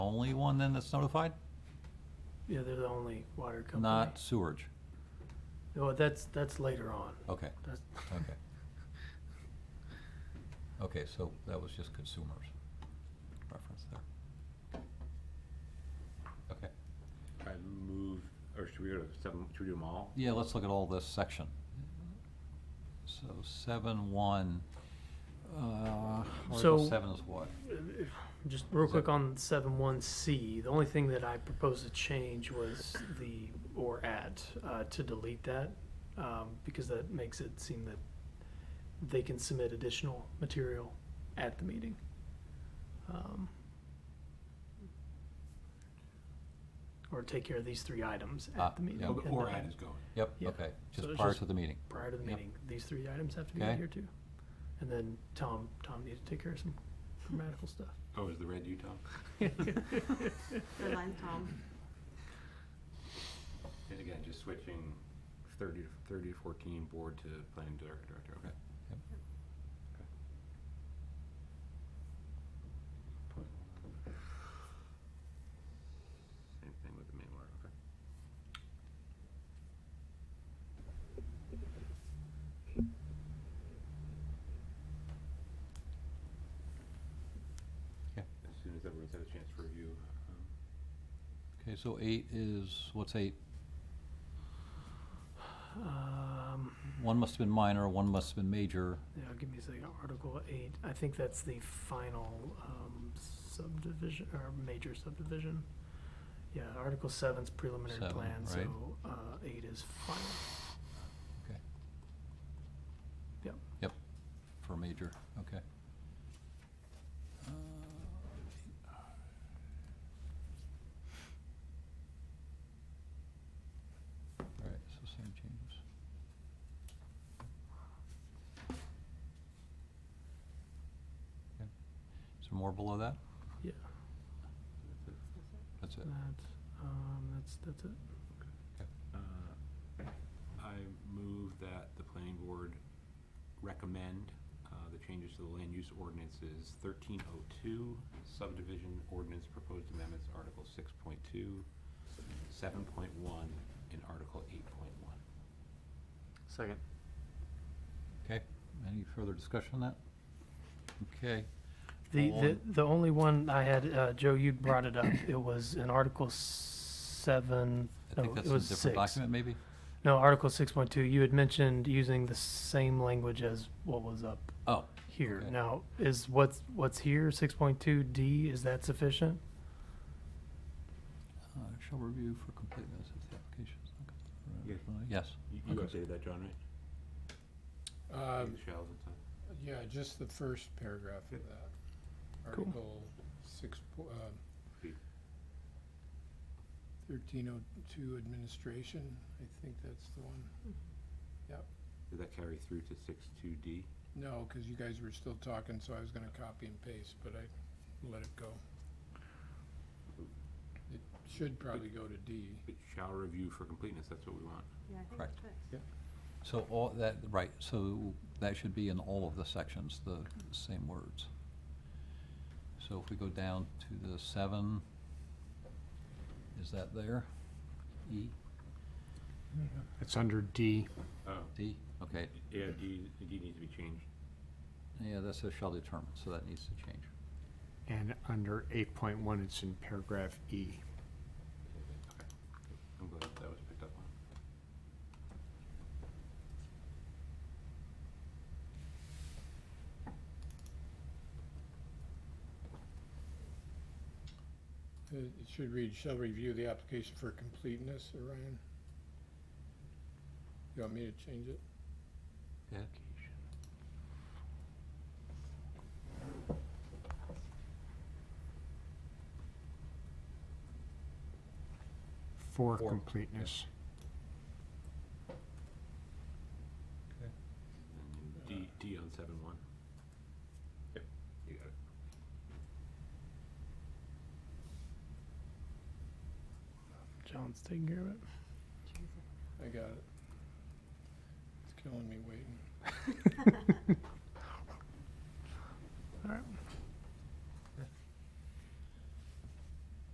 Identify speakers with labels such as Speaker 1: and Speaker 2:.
Speaker 1: only one then that's notified?
Speaker 2: Yeah, they're the only water company.
Speaker 1: Not sewerage?
Speaker 2: No, that's, that's later on.
Speaker 1: Okay,
Speaker 2: That's,
Speaker 1: okay. Okay, so that was just consumers reference there. Okay,
Speaker 3: I move, or should we go to seven, should we do them all?
Speaker 1: yeah, let's look at all this section. So seven one, uh, Article
Speaker 2: So-
Speaker 1: seven is what?
Speaker 2: just real
Speaker 1: So-
Speaker 2: quick on seven one C, the only thing that I proposed to change was the or at, uh, to delete that. Um, because that makes it seem that they can submit additional material at the meeting. Um, Or take care of these three items
Speaker 1: Ah,
Speaker 2: at the meeting.
Speaker 1: yeah.
Speaker 4: Okay,
Speaker 2: and
Speaker 4: Or
Speaker 2: then
Speaker 4: ad is going.
Speaker 1: Yep,
Speaker 2: Yeah,
Speaker 1: okay,
Speaker 2: so
Speaker 1: just
Speaker 2: it's
Speaker 1: prior
Speaker 2: just
Speaker 1: to the meeting.
Speaker 2: Prior to the
Speaker 1: Yep.
Speaker 2: meeting, these three items have to be
Speaker 1: Okay.
Speaker 2: in here too. And then Tom, Tom needed to take care of some grammatical stuff.
Speaker 4: Oh, is the red Utah?
Speaker 5: Red line, Tom.
Speaker 3: And again, just switching thirty to, thirty to fourteen, board to planning director, director, okay.
Speaker 1: Yep.
Speaker 3: Okay. Same thing with the main word, okay.
Speaker 1: Yeah.
Speaker 3: As soon as everyone's had a chance to review, um,
Speaker 1: Okay, so eight is, what's eight?
Speaker 2: Um,
Speaker 1: One must have been minor, one must have been major.
Speaker 2: yeah, give me a second, Article eight, I think that's the final, um, subdivision, or major subdivision. Yeah, Article seven's preliminary
Speaker 1: Seven,
Speaker 2: plan,
Speaker 1: right.
Speaker 2: so, uh, eight is final.
Speaker 1: Okay.
Speaker 2: Yep.
Speaker 1: Yep, for major, okay. Uh, All right, so same changes. Okay. Is there more below that?
Speaker 2: Yeah,
Speaker 3: that's it.
Speaker 1: That's it.
Speaker 2: that's, um, that's, that's it.
Speaker 3: Uh, I move that the planning board recommend uh, the changes to the land use ordinances thirteen oh two, subdivision ordinance proposed amendments, Article six point two, seven point one, and Article eight point one.
Speaker 6: Second.
Speaker 1: Okay, any further discussion on that? Okay,
Speaker 2: The,
Speaker 1: Go
Speaker 2: the,
Speaker 1: on.
Speaker 2: the only one I had, uh, Joe, you brought it up, it was in Article seven,
Speaker 1: I
Speaker 2: no,
Speaker 1: think
Speaker 2: oh, it
Speaker 1: that's in a
Speaker 2: was
Speaker 1: different
Speaker 2: six.
Speaker 1: document, maybe?
Speaker 2: No, Article six point two, you had mentioned using the same language as what was up
Speaker 1: Oh,
Speaker 2: here.
Speaker 1: Okay.
Speaker 2: Now, is what's, what's here, six point two D, is that sufficient?
Speaker 1: Uh, Shall review for completeness of the application. is not
Speaker 3: Yeah.
Speaker 1: complete. Yes.
Speaker 3: You Um,
Speaker 1: Okay.
Speaker 3: updated that, John, right?
Speaker 7: Uh,
Speaker 3: The shells and stuff?
Speaker 7: yeah, just the first paragraph of that.
Speaker 2: Cool.
Speaker 7: Article six, po- uh,
Speaker 3: Eight.
Speaker 7: thirteen oh two administration, I think that's the one.
Speaker 3: Did that carry through to six two D?
Speaker 7: No, cause you guys were still talking, so I was gonna copy and paste, but I let it go. It should probably go to D.
Speaker 3: It shall review for completeness, that's what we want.
Speaker 5: Yeah, I think
Speaker 1: Correct.
Speaker 5: that's it.
Speaker 1: So all that, right, so that should be in all of the sections, the same words. So if we go down to the seven, is that there? E,
Speaker 6: It's under D.
Speaker 3: Oh,
Speaker 1: D? Okay,
Speaker 3: yeah, D, D needs to be changed.
Speaker 1: yeah, that says shall determine, so that needs to change.
Speaker 6: And under 8.1, it's in paragraph E.
Speaker 3: Okay. I'm glad that was picked up on.
Speaker 7: It Uh, it should read, shall review the application for completeness, Orion. You want me to change it?
Speaker 1: Yeah,
Speaker 6: For
Speaker 1: For, yeah.
Speaker 6: completeness.
Speaker 3: And D, D on seven one. Yep, you got it.
Speaker 2: John's taking care of it.
Speaker 7: I got it. It's killing me waiting.